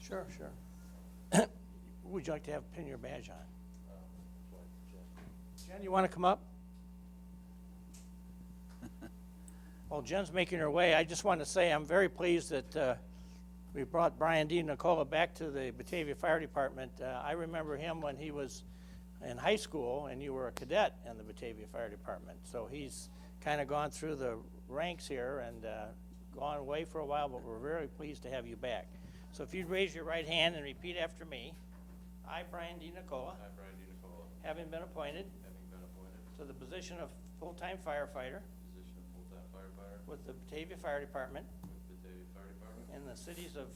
Sure, sure. Would you like to have pin your badge on? Jen, you want to come up? While Jen's making her way, I just want to say I'm very pleased that uh, we brought Brian D. Nicola back to the Batavia Fire Department. Uh, I remember him when he was in high school and you were a cadet in the Batavia Fire Department. So he's kind of gone through the ranks here and uh, gone away for a while, but we're very pleased to have you back. So if you'd raise your right hand and repeat after me. I, Brian D. Nicola, I, Brian D. Nicola, having been appointed having been appointed to the position of full-time firefighter to the position of full-time firefighter with the Batavia Fire Department with the Batavia Fire Department in the cities of,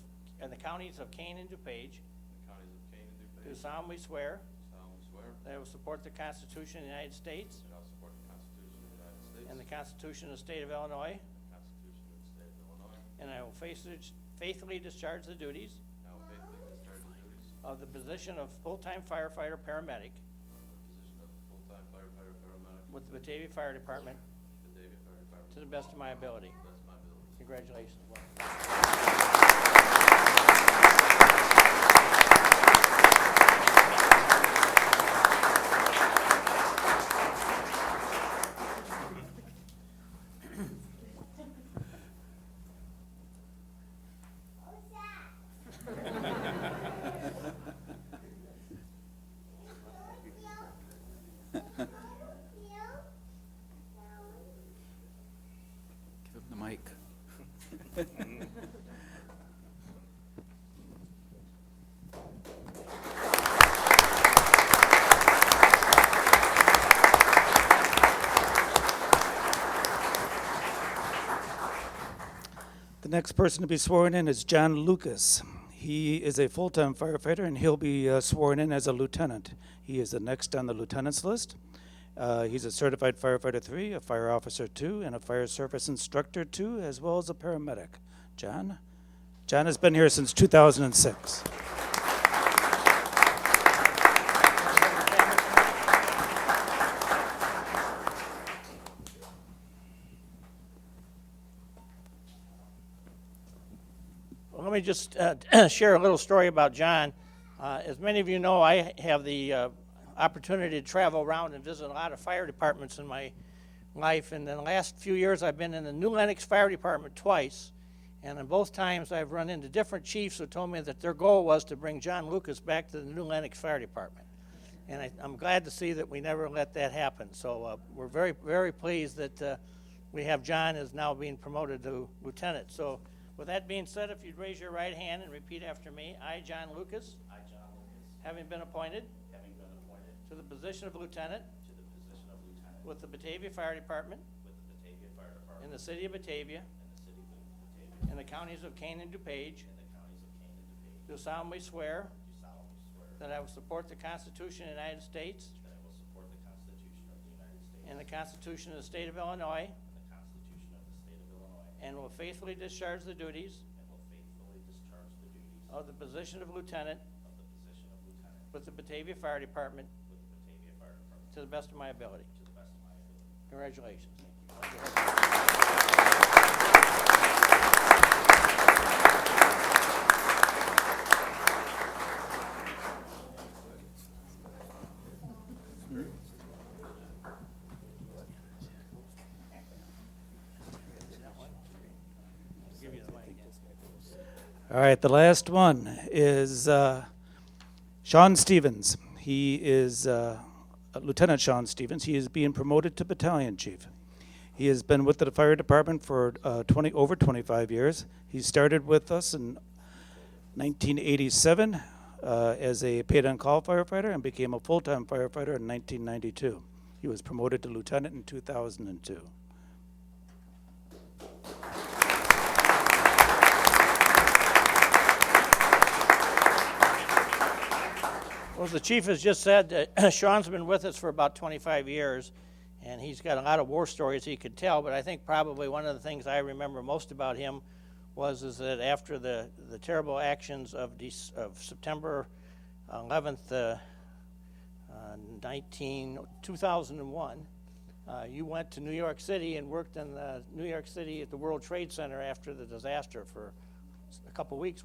in the counties of Kane and DuPage, in the counties of Kane and do DuPage, solemnly swear solemnly swear that I will support the Constitution of the United States that I will support the Constitution of the United States and and the Constitution of the State of Illinois, the Constitution of the State of Illinois, and I will faithfully- faithfully discharge the duties and I will faithfully discharge the duties of the position of full-time firefighter paramedic of the position of full-time firefighter paramedic with the Batavia Fire Department with the Batavia Fire Department to to the best of my ability. the best of my ability. Congratulations. Give him the mic. The next person to be sworn in is John Lucas. He is a full-time firefighter, and he'll be uh, sworn in as a lieutenant. He is the next on the lieutenant's list. Uh, He's a certified firefighter three, a fire officer two, and a fire service instructor two, as well as a paramedic. John? John has been here since 2006. Well, let me just uh, share a little story about John. Uh, as many of you know, I have the uh, opportunity to travel around and visit a lot of fire departments in my life. And in the last few years, I've been in the New Lenox Fire Department twice. And in both times, I've run into different chiefs who told me that their goal was to bring John Lucas back to the New Lenox Fire Department. And I, I'm glad to see that we never let that happen. So uh, we're very, very pleased that uh, we have John is now being promoted to lieutenant. So with that being said, if you'd raise your right hand and repeat after me. I, John Lucas, I, John Lucas, having been appointed having been appointed to the position of lieutenant to the position of lieutenant with the Batavia Fire Department with the Batavia Fire Department in the city of and Batavia the city of Batavia and the counties of Kane and DuPage, and the counties of Kane and DePage, do solemnly swear do solemnly swear that I will support the Constitution of the United States that I will support the Constitution of the United States and the Constitution of the state of Illinois and the Constitution of the State of Illinois, and will faithfully discharge the duties and will faithfully discharge the duties of the position of lieutenant of the position of lieutenant with the Batavia Fire Department with the Batavia Fire Department to the best of my ability. to the best of my ability. Congratulations. All right, the last one is uh, Sean Stevens. He is uh, Lieutenant Sean Stevens. He is being promoted to battalion chief. He has been with the fire department for uh, 20 over 25 years. He started with us in 1987 uh, as a paid-on-call firefighter and became a full-time firefighter in 1992. He was promoted to lieutenant in 2002. Well, as the chief has just said, uh, Sean's been with us for about 25 years, and he's got a lot of war stories he could tell, but I think probably one of the things I remember most about him was is that after the, the terrible actions of, Dec- of September 11th, uh, uh, 19, 2001, uh, you went to New York City and worked in uh, New York City at the World Trade Center after the disaster for a couple weeks,